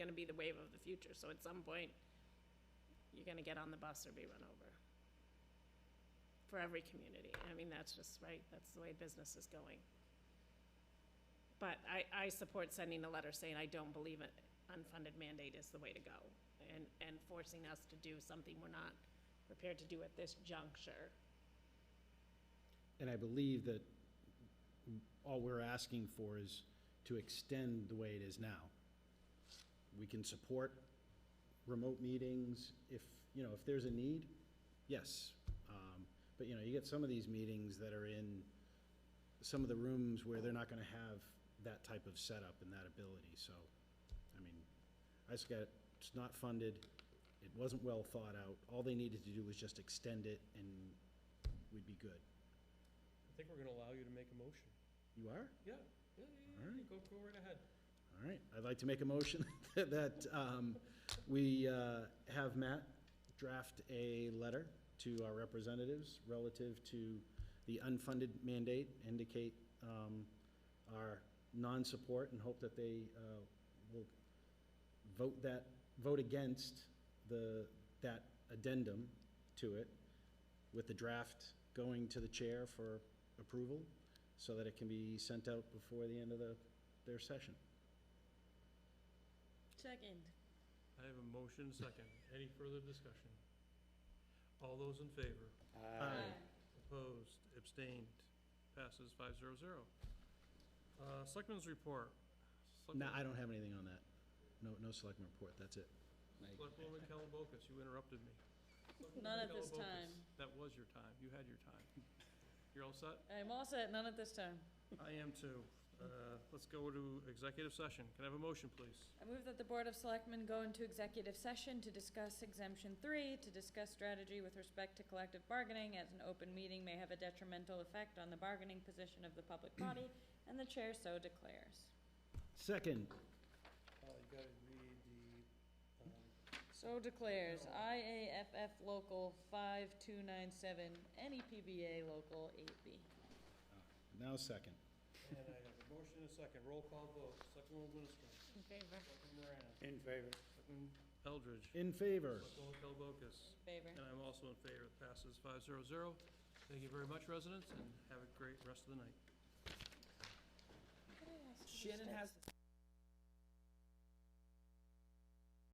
be the wave of the future, so at some point, you're gonna get on the bus or be run over. For every community, I mean, that's just, right, that's the way business is going. But I, I support sending a letter saying I don't believe an unfunded mandate is the way to go, and, and forcing us to do something we're not prepared to do at this juncture. And I believe that all we're asking for is to extend the way it is now. We can support remote meetings if, you know, if there's a need, yes. Um, But, you know, you get some of these meetings that are in some of the rooms where they're not going to have that type of setup and that ability, so, I mean, I just got, it's not funded, it wasn't well thought out, all they needed to do was just extend it and we'd be good. I think we're gonna allow you to make a motion. You are? Yeah, yeah, yeah, yeah, Alright. go, go right ahead. All right, I'd like to make a motion that um, we uh, have Matt draft a letter to our representatives relative to the unfunded mandate, indicate um, our non-support and hope that they uh, will vote that, vote against the, that addendum to it, with the draft going to the chair for approval, so that it can be sent out before the end of the, their session. Second. I have a motion second. Any further discussion? All those in favor? Uh, Aye. Opposed, abstained, passes five zero zero. Uh, Selectmen's report. No, I don't have anything on that. No, no selectmen report, that's it. Selectwoman Kellabokas, you interrupted me. Selectwoman Not at this Kellabokas, time. That was your time. You had your time. You're all set? I'm all set, none at this time. I am too. Uh, Let's go to executive session. Can I have a motion, please? I move that the Board of Selectmen go into executive session to discuss exemption three, to discuss strategy with respect to collective bargaining, as an open meeting may have a detrimental effect on the bargaining position of the public body, and the chair so declares. Second, Uh, You gotta read um, So declares IAFF Local 5297, NEPBA Local 8B. now second. the, and I have a motion and a second. Roll call vote. Selectwoman Winstrom. In favor? Selectwoman Moran. In favor. Selectwoman Eldridge. In favor. Selectwoman Kellabokas. Favor. And I'm also in favor. It passes five zero zero. Thank you very much, residents, and have a great rest of the night. Shannon has the